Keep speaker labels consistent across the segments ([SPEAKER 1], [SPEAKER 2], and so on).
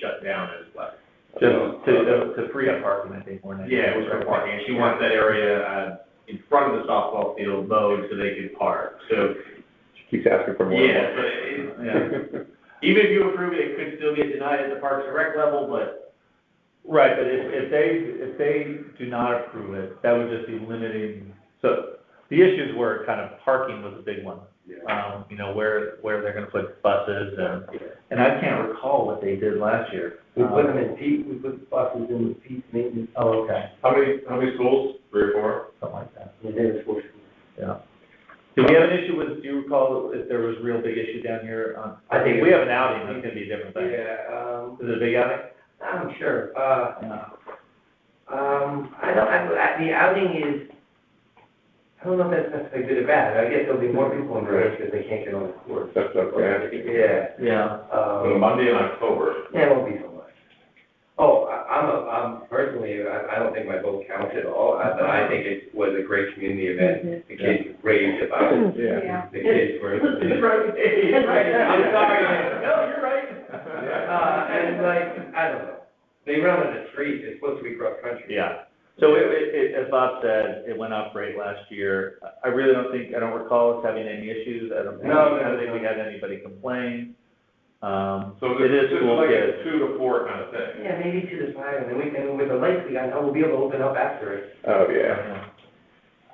[SPEAKER 1] shut down as like.
[SPEAKER 2] Just to, to free up parking, I think, more than.
[SPEAKER 1] Yeah, it was for parking, and she wants that area, uh, in front of the softball field mowed so they could park, so,
[SPEAKER 3] Keeps asking for more.
[SPEAKER 1] yeah, but, it- yeah. Even if you approve it, it could still get denied at the Parks and Rec level, but
[SPEAKER 2] Right, but if, if they, if they do not approve it, that would just be limiting, so the issues were kind of parking was a big one. Um, you know, where, where they're gonna put buses and, and I can't recall what they did last year.
[SPEAKER 4] We put them in peak, we put buses in the peak maintenance,
[SPEAKER 2] Oh, okay,
[SPEAKER 3] How many, how many schools? Three or four?
[SPEAKER 2] something like that,
[SPEAKER 4] and then it's forced.
[SPEAKER 2] yeah. Do we have an issue with, do you recall if there was real big issue down here on?
[SPEAKER 4] I think-
[SPEAKER 2] We have an outing, that's gonna be a different thing.
[SPEAKER 4] Yeah, um,
[SPEAKER 2] Is it a big outing?
[SPEAKER 4] I'm sure, uh,
[SPEAKER 2] Yeah.
[SPEAKER 4] um, I don't, I, I- the outing is, I don't know if that's necessarily good or bad, I guess there'll be more people in the race because they can't get on the court.
[SPEAKER 3] That's up there.
[SPEAKER 4] Yeah,
[SPEAKER 2] Yeah.
[SPEAKER 3] So
[SPEAKER 4] um,
[SPEAKER 3] Monday in October.
[SPEAKER 4] yeah, it won't be so much. Oh, I, I'm, a- I'm personally, I, I don't think my vote counts at all, I, but I think it was a great community event, the kids raved about it,
[SPEAKER 5] Yeah.
[SPEAKER 4] the kids were.
[SPEAKER 1] I'm sorry,
[SPEAKER 4] No, you're right. Uh, and like, I don't know, they run on the street, it's supposed to be cross country.
[SPEAKER 2] Yeah, so it, it, it- as Bob said, it went up great last year. I really don't think, I don't recall us having any issues. I don't think,
[SPEAKER 4] No, no,
[SPEAKER 2] I don't think we
[SPEAKER 4] no.
[SPEAKER 2] had anybody complain. Um,
[SPEAKER 3] So
[SPEAKER 2] it
[SPEAKER 3] this,
[SPEAKER 2] is
[SPEAKER 3] this is
[SPEAKER 2] school
[SPEAKER 3] like
[SPEAKER 2] kids.
[SPEAKER 3] a two to four kind of thing.
[SPEAKER 4] Yeah, maybe two to five, and then we can, with the lights we got, now we'll be able to open up after it.
[SPEAKER 3] Oh, yeah.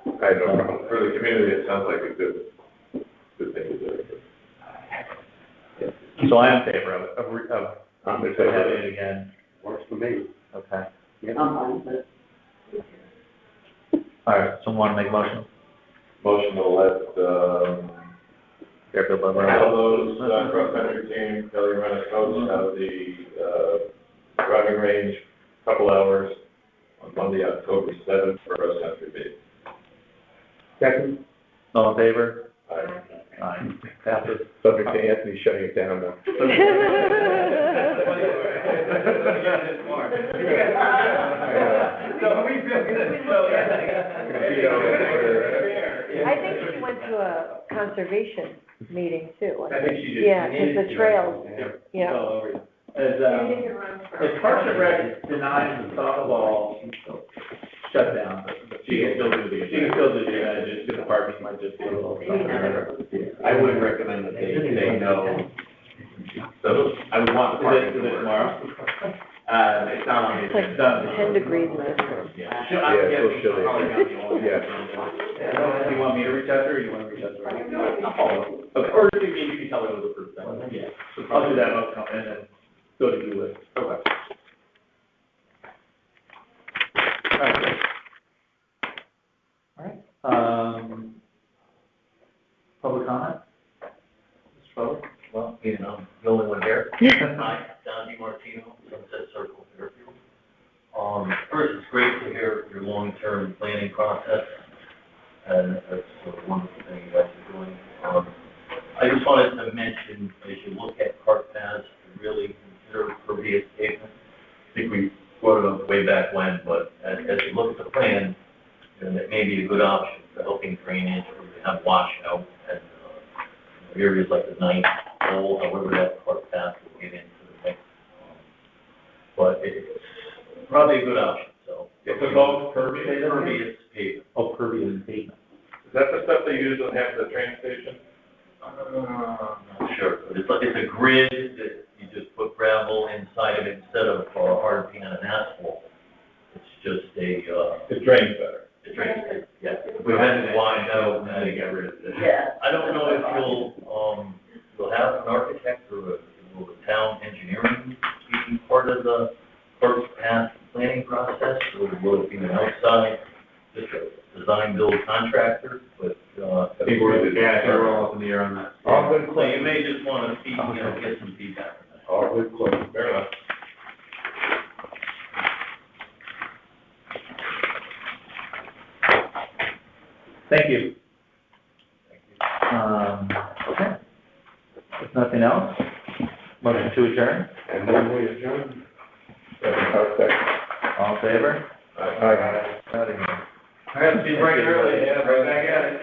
[SPEAKER 2] Yeah.
[SPEAKER 3] I have no problem. For the community, it sounds like a good, good thing to do.
[SPEAKER 2] So I'm in favor of, of, re- of
[SPEAKER 3] I'm in favor.
[SPEAKER 2] having it again.
[SPEAKER 3] Works for me.
[SPEAKER 2] Okay.
[SPEAKER 6] Um,
[SPEAKER 5] I'm fine with it.
[SPEAKER 2] All right, someone wanna make a motion?
[SPEAKER 3] Motion to let, um,
[SPEAKER 2] Fairfield Lumber.
[SPEAKER 3] Al Lowe's, uh, cross-country team, Kelly Rennick coach, out of the, uh, driving range, couple hours on Monday, October seventh, for cross-country meet.
[SPEAKER 6] Second,
[SPEAKER 2] All in favor?
[SPEAKER 3] Aye.
[SPEAKER 2] Aye. Passes.
[SPEAKER 6] subject to Anthony shutting it down now.
[SPEAKER 4] So we feel good, so,
[SPEAKER 5] I think she went to a conservation meeting too.
[SPEAKER 4] I think she just.
[SPEAKER 5] Yeah, 'cause the trails.
[SPEAKER 2] It's
[SPEAKER 5] Yeah.
[SPEAKER 2] all over you. As, um, if Parks and Rec denies the softball shutdown,
[SPEAKER 1] she can still do the. uh,
[SPEAKER 2] You can still do that, just get the parking, might just be a little.
[SPEAKER 1] I would recommend that they say no. So I would want the parking to work.
[SPEAKER 2] tomorrow?
[SPEAKER 1] Uh, it's not on the
[SPEAKER 5] It's like
[SPEAKER 1] agenda. Done.
[SPEAKER 5] ten degrees last
[SPEAKER 1] Yeah, she'll- I'm
[SPEAKER 6] Yeah, so
[SPEAKER 1] guessing she'll
[SPEAKER 6] she'll-
[SPEAKER 1] probably not be on.
[SPEAKER 6] yeah.
[SPEAKER 1] Do you want me to reach out to her, or you want to reach out to her? I'll follow up. Okay, or you can, you can tell her it was approved then. Yeah. So
[SPEAKER 2] I'll do
[SPEAKER 1] probably
[SPEAKER 2] that,
[SPEAKER 1] that,
[SPEAKER 2] I'll come in and go to do it.
[SPEAKER 1] okay.
[SPEAKER 2] Alright, um, public comment? Mr. Butler?
[SPEAKER 7] Well, you know, the only one here. Hi, Don DiMartino, Sunset Circle, Fairfield. Um, first, it's great to hear your long-term planning process, and that's a wonderful thing you guys are doing. Um, I just wanted to mention, as you look at park paths, to really consider pervious pavement. I think we brought it up way back when, but as, as you look at the plan, you know, that may be a good option for helping drainage, or to have washout, and, uh, areas like the ninth goal, however that part path will get into the mix. But it's probably a good option, so.
[SPEAKER 3] It's about pervious.
[SPEAKER 7] Pervious pavement.
[SPEAKER 2] Oh, pervious pavement.
[SPEAKER 3] Is that the stuff they use on half the train station?
[SPEAKER 7] Uh, Sure, but it's like, it's a grid that you just put gravel inside of it instead of uh, hard pan and asphalt. It's just a, uh,
[SPEAKER 3] It drains better.
[SPEAKER 7] a drain, yeah. We had to widen out,
[SPEAKER 1] I
[SPEAKER 7] and
[SPEAKER 1] think I read it.
[SPEAKER 5] Yeah.
[SPEAKER 7] I don't know if you'll, um, you'll have an architect or a- will the town engineering be part of the first path planning process? Or will it be an outside, just a design build contractor, but, uh.
[SPEAKER 3] I think we're-
[SPEAKER 1] Yeah, they're all up in the air on that.
[SPEAKER 6] All good
[SPEAKER 7] So you
[SPEAKER 6] claims,
[SPEAKER 7] may just wanna see, you know, get some feedback from that.
[SPEAKER 6] all good claims.
[SPEAKER 3] Fair enough.
[SPEAKER 2] Thank you. Um, okay. If nothing else, motion to adjourn,
[SPEAKER 6] And then we adjourn. I'll second.
[SPEAKER 2] all in favor?
[SPEAKER 6] Aye.
[SPEAKER 2] Out of here.
[SPEAKER 1] I have to be right early, yeah, right back at it.